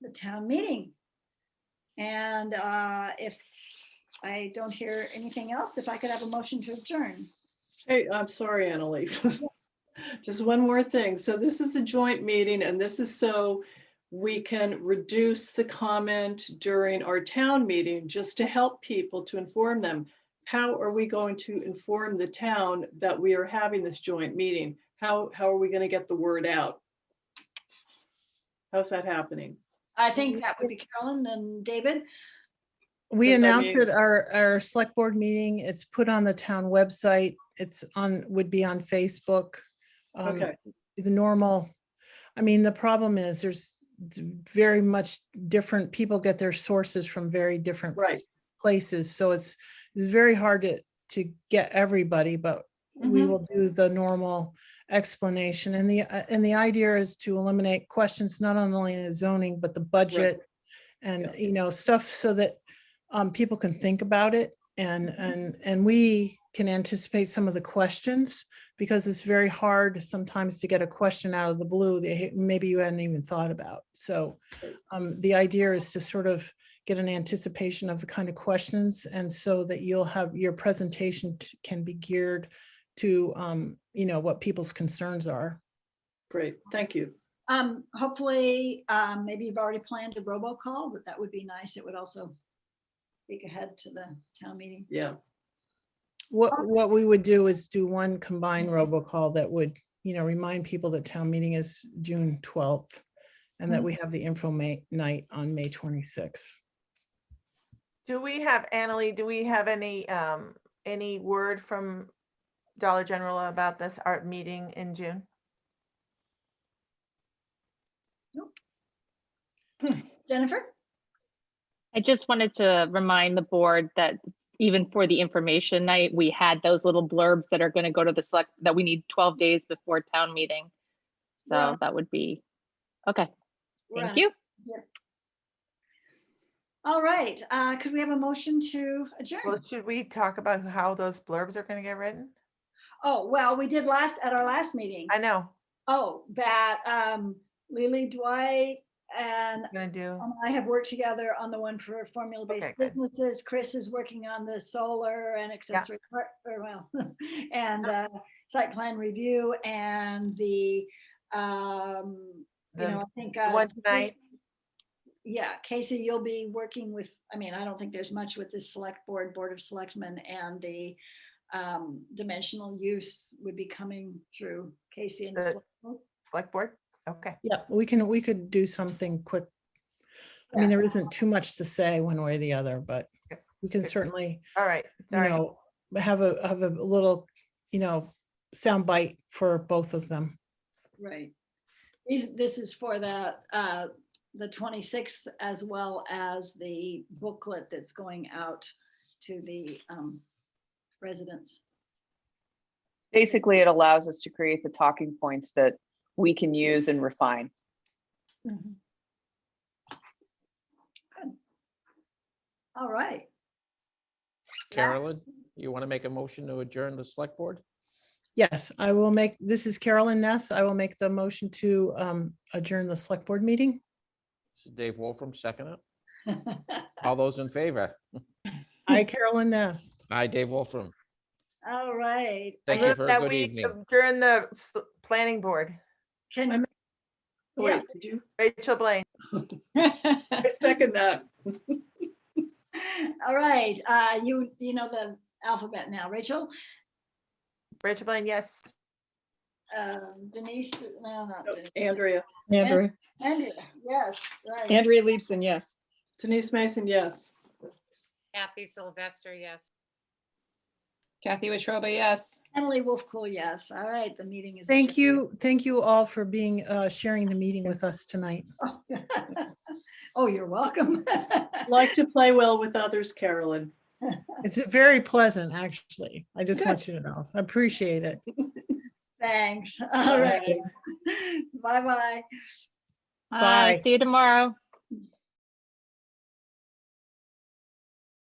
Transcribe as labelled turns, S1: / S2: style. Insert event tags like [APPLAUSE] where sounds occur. S1: the town meeting. And uh, if I don't hear anything else, if I could have a motion to adjourn.
S2: Hey, I'm sorry, Annalee. [LAUGHS] Just one more thing. So this is a joint meeting and this is so we can reduce the comment during our town meeting, just to help people to inform them. How are we going to inform the town that we are having this joint meeting? How, how are we going to get the word out? How's that happening?
S1: I think that would be Carolyn and David.
S3: We
S2: Yes, I
S3: announced
S2: mean-
S3: it, our, our select board meeting, it's put on the town website, it's on, would be on Facebook. um,
S2: Okay.
S3: The normal, I mean, the problem is there's d- very much different, people get their sources from very different
S2: Right.
S3: places, so it's, it's very hard to, to get everybody, but we
S2: Mm-hmm.
S1: Mhm.
S3: will do the normal explanation. And the, uh, and the idea is to eliminate questions not only in zoning, but the budget and,
S2: Yeah.
S3: you know, stuff so that um, people can think about it and,
S2: Mm-hmm.
S1: Mhm.
S3: and, and we can anticipate some of the questions because it's very hard sometimes to get a question out of the blue that hey, maybe you hadn't even thought about. So
S2: Right.
S3: um, the idea is to sort of get an anticipation of the kind of questions and so that you'll have, your presentation t- can be geared to, um, you know, what people's concerns are.
S2: Great. Thank you.
S1: Um, Hopefully, um, maybe you've already planned a robocall, but that would be nice. It would also speak ahead to the town meeting.
S2: Yeah.
S4: Oh.
S3: What, what we would do is do one combined
S4: Mm-hmm.
S3: robocall that would, you know, remind people that town meeting is June twelfth and that
S4: Mm-hmm.
S1: Mhm.
S3: we have the info ma- night on May twenty-sixth.
S4: Do we have, Annalee, do we have any, um, any word from Dollar General about this art meeting in June?
S1: Jennifer?
S5: I just wanted to remind the board that even for the information night, we had those little blurbs that are going to go to the select, that we need 12 days before town meeting.
S1: Yeah.
S5: So that would be, okay,
S1: we're on
S5: thank
S1: it.
S5: you.
S1: All right, uh, could we have a motion to
S4: Well,
S1: adjourn?
S4: should we talk about how those blurbs are gonna get written?
S1: Oh, well, we did last, at our last meeting.
S4: I know,
S1: Oh, that um, Lily Dwight and
S4: I'm gonna do,
S1: Um, I have worked together on the one for
S4: Okay,
S1: formula-based
S4: good.
S1: businesses. Chris is working on the solar and accessory, part- or well, [LAUGHS] and uh, site plan review and the, um, you
S4: The-
S1: know, I think.
S4: the
S1: uh,
S4: one
S1: Casey-
S4: tonight?
S1: Yeah, Casey, you'll be working with, I mean, I don't think there's much with the select board, Board of Selectmen and the um, dimensional use would be coming through Casey and the
S4: The-
S1: select board.
S4: select board, okay.
S3: Yeah, we can, we could do something quick. I mean,
S1: Yeah.
S3: there isn't too much to say one way or the other, but
S4: Yep.
S3: we can
S4: Good.
S3: certainly,
S4: All right,
S3: you
S4: sorry.
S3: know, have a, have a little, you know, sound bite for both of them.
S1: Right. These, this is for the, uh, the twenty-sixth as well as the booklet that's going out to the, um, residents.
S6: Basically, it allows us to create the talking points that we can use and refine.
S1: Good. All right. [LAUGHS]
S7: Carolyn, you want to make a motion to adjourn the select board?
S3: Yes, I will make, this is Carolyn Ness. I will make the motion to um, adjourn the select board meeting.
S7: Dave Wolfram, second it. All those in favor?
S3: Hi, Carolyn Ness.
S7: Aye, Dave Wolfram.
S1: All right.
S7: Thank you
S4: Move
S7: for a
S4: that
S7: good
S4: we
S7: evening.
S4: During the s- planning board,
S1: [LAUGHS] Can, Yeah.
S2: Oh, Wait, did you?
S4: Rachel Blaine.
S2: I second that.
S1: all right, uh, you, you know the alphabet now. Rachel,
S4: Rachel Blaine, yes.
S1: uh, Denise, no, not Denise.
S2: Andrea.
S1: Andrea. Andrea, yes, right.
S8: Andrea Leibson, yes.
S2: Denise Mason, yes.
S9: Kathy Sylvester, yes.
S8: Kathy Wetruba, yes.
S1: Emily Wolfcool, yes. All right, the meeting is.
S3: Thank you, thank you all for being, uh, sharing the meeting with us tonight.
S1: you. [LAUGHS] Oh, you're welcome. [LAUGHS]
S2: Like to play well with others, Carolyn.
S3: It's very pleasant, actually. I just
S2: Good.
S3: want you to know. I appreciate it.
S1: Thanks. All right. Bye-bye.
S5: Bye,
S3: Bye.
S5: Uh, see you tomorrow.